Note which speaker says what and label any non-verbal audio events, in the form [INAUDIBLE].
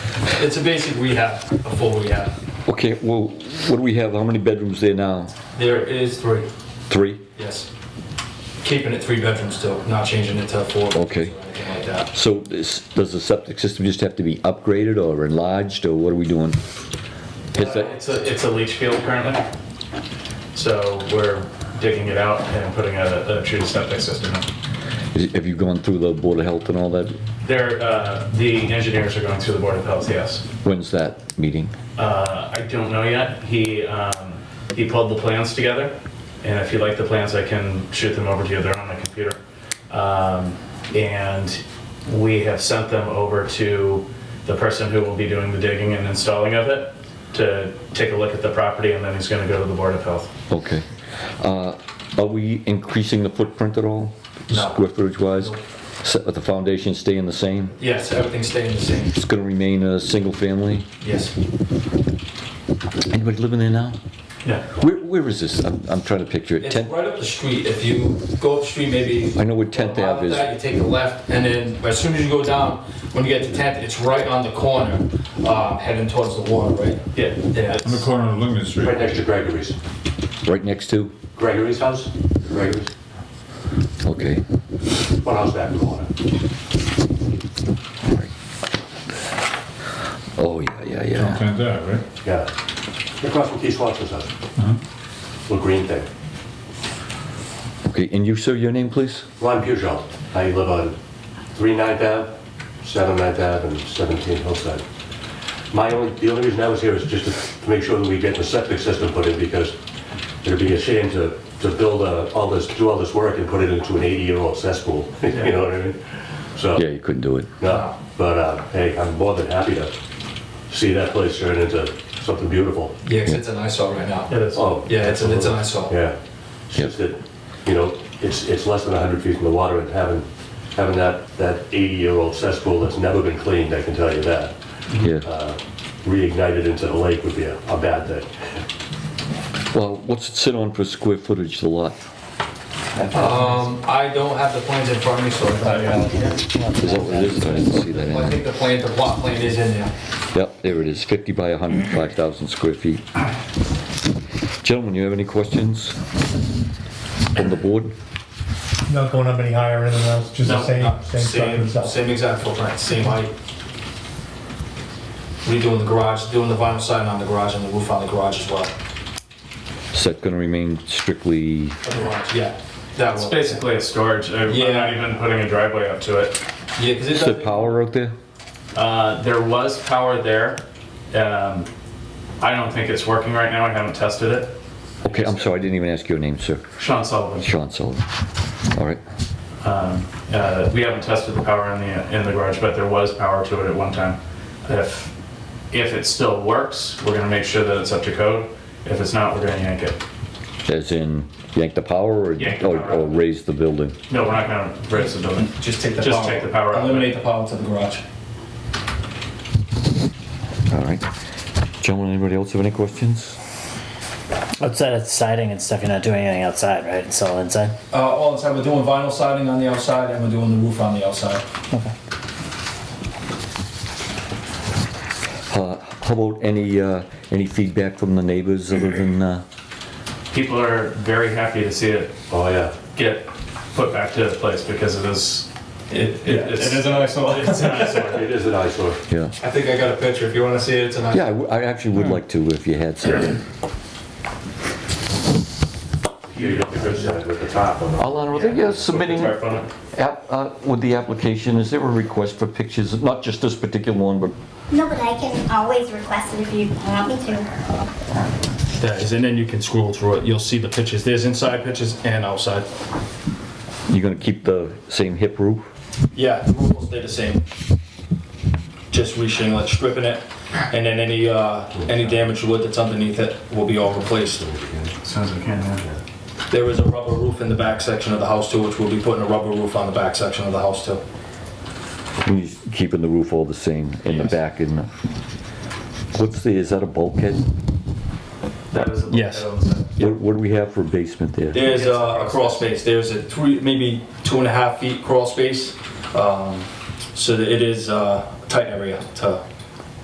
Speaker 1: It's a basic rehab, a full rehab.
Speaker 2: Okay, well, what do we have? How many bedrooms there now?
Speaker 1: There is three,
Speaker 2: Three?
Speaker 1: yes. Keeping it three bedrooms still, not changing it to four. bedrooms
Speaker 2: Okay.
Speaker 1: or Anything like that.
Speaker 2: So this, does the septic system just have to be upgraded or enlarged, or what are we doing? Is
Speaker 3: Uh,
Speaker 2: that,
Speaker 3: It's a, it's a leach field currently. So we're digging it out and putting a, a true septic system in.
Speaker 2: is- have you gone through the Board of Health and all that?
Speaker 3: There, uh, the engineers are going through the Board of Health, yes.
Speaker 2: When's that meeting?
Speaker 3: Uh, I don't know yet. He, um, he pulled the plans together. And if you like the plans, I can shoot them over to you. They're on the computer. Um, and we have sent them over to the person who will be doing the digging and installing of it to take a look at the property and then he's gonna go to the Board of Health.
Speaker 2: Okay. Uh, Are we increasing the footprint at all?
Speaker 1: No.
Speaker 2: Square footage wise? Set with the foundation staying the same?
Speaker 1: Yes, everything's staying the same,
Speaker 2: It's gonna remain a single family?
Speaker 1: yes.
Speaker 2: Anybody living there now?
Speaker 3: Yeah.
Speaker 2: Where, where is this? I'm, I'm trying to picture it.
Speaker 1: It's
Speaker 2: 10th,
Speaker 1: right up the street, if you go up the street maybe.
Speaker 2: I know where 10th
Speaker 1: a mile
Speaker 2: Ave is.
Speaker 1: back, You take a left, and then as soon as you go down, when you get to 10th, it's right on the corner, um, heading towards the water, right?
Speaker 3: Yeah.
Speaker 1: Yeah,
Speaker 4: On the
Speaker 1: it's-
Speaker 4: corner of Lincoln
Speaker 5: Right
Speaker 4: Street.
Speaker 5: next to Gregory's.
Speaker 2: right next to?
Speaker 5: Gregory's house? Gregory's.
Speaker 2: Okay.
Speaker 5: One house back from the water.
Speaker 2: Oh, yeah, yeah, yeah.
Speaker 4: Something like that, right?
Speaker 5: Yeah. Across from Keith Swanson's house. Little green thing.
Speaker 2: Okay, and you, sir, your name, please?
Speaker 5: Ron Pujol. I live on 3 Ninth Ave, 7 Ninth Ave, and 17 Hillside. My only, the only reason I was here is just to- to make sure that we get the septic system put in because it'd be a shame to, to build a- all this, do all this work and put it into an 80-year-old cesspool. [LAUGHS] You know what I mean? So.
Speaker 2: Yeah, you couldn't do it.
Speaker 5: No, but uh, hey, I'm more than happy to see that place turn into something beautiful.
Speaker 1: yeah, 'cause it's an eyesore right now.
Speaker 3: It is.
Speaker 5: Oh,
Speaker 1: Yeah, it's a- it's an eyesore.
Speaker 5: Yeah, it's just that, you know, it's, it's less than 100 feet from the water and having, having that, that 80-year-old cesspool that's never been cleaned, I can tell you that,
Speaker 2: Yeah.
Speaker 5: reignited into the lake would be a, a bad thing.
Speaker 2: Well, what's it sit on for square footage, the lot?
Speaker 1: Um, I don't have the plans in front of me, so I thought,
Speaker 2: Is that what it is? I didn't see that in
Speaker 1: Well, I
Speaker 2: there.
Speaker 1: think the plan, the plot plan is in there.
Speaker 2: Yep, there it is, 50 by 105,000 square feet. Gentlemen, you have any questions from the board?
Speaker 6: Not going up any higher or anything else, just the
Speaker 1: No, no,
Speaker 6: same, same
Speaker 1: same,
Speaker 6: stuff itself.
Speaker 1: same exact footprint, same height. Redoing the garage, doing the vinyl siding on the garage and the roof on the garage as well.
Speaker 2: Is that going to remain strictly,
Speaker 1: The garage, Yeah, that
Speaker 3: It's
Speaker 1: one.
Speaker 3: basically a storage. uh, I'm I'm not
Speaker 1: Yeah.
Speaker 3: even putting a driveway up to it.
Speaker 1: Yeah, 'cause it
Speaker 2: is there
Speaker 1: does-
Speaker 2: power out there?
Speaker 3: Uh, there was power there. Um, I don't think it's working right now. I haven't tested it.
Speaker 2: Okay, I'm sorry, I didn't even ask your name, sir.
Speaker 3: Sean Sullivan.
Speaker 2: Sean Sullivan. All right,
Speaker 3: Um, uh, we haven't tested the power in the in the garage, but there was power to it at one time. If if it still works, we're gonna make sure that it's up to code. If it's not, we're gonna yank it.
Speaker 2: as in yank the power or-
Speaker 3: Yank the
Speaker 2: or
Speaker 3: power.
Speaker 2: or raise the building?
Speaker 3: No, we're not gonna raise the building.
Speaker 1: Just take the power.
Speaker 3: Just take the power out.
Speaker 1: Eliminate the power to the garage.
Speaker 2: All right. Gentlemen, anybody else have any questions?
Speaker 7: Outside it's siding and stuff, you're not doing anything outside, right? It's all inside.
Speaker 1: Uh, all inside, we're doing vinyl siding on the outside and we're doing the roof on the outside.
Speaker 2: Uh, How about any, uh, any feedback from the neighbors other than, uh,
Speaker 3: People are very happy to see it
Speaker 5: Oh, yeah.
Speaker 3: get put back to its place because it is. It, it, it's,
Speaker 1: an eyesore.
Speaker 3: it's an eyesore.
Speaker 5: It is an eyesore.
Speaker 2: yeah?
Speaker 1: I think I got a picture, if you wanna see it, it's an eyesore.
Speaker 2: Yeah, I w- I actually would like to if you had some.
Speaker 5: You got the good side with the top on it.
Speaker 2: Alana, I think you're submitting,
Speaker 3: Sorry, phone.
Speaker 2: app- uh, with the application, is there a request for pictures, not just this particular one, but
Speaker 8: No, but I can always request it if you want me to.
Speaker 3: That is, and then you can scroll through it. You'll see the pictures. There's inside pictures and outside.
Speaker 2: you're gonna keep the same hip roof?
Speaker 1: Yeah, the roof will stay the same. Just re-shingling, stripping it, and then any, uh, any damaged wood that's underneath it will be all replaced.
Speaker 3: Sounds like can.
Speaker 1: There is a rubber roof in the back section of the house too, which we'll be putting a rubber roof on the back section of the house too.
Speaker 2: You're Keeping the roof all the same in the back and, the- what's the, is that a bulkhead?
Speaker 3: That is. the-
Speaker 1: Yes.
Speaker 2: What what do we have for basement there?
Speaker 1: There's uh, a crawl space, there's a three, maybe two and a half feet crawl space. Um, So that it is uh, a tight area to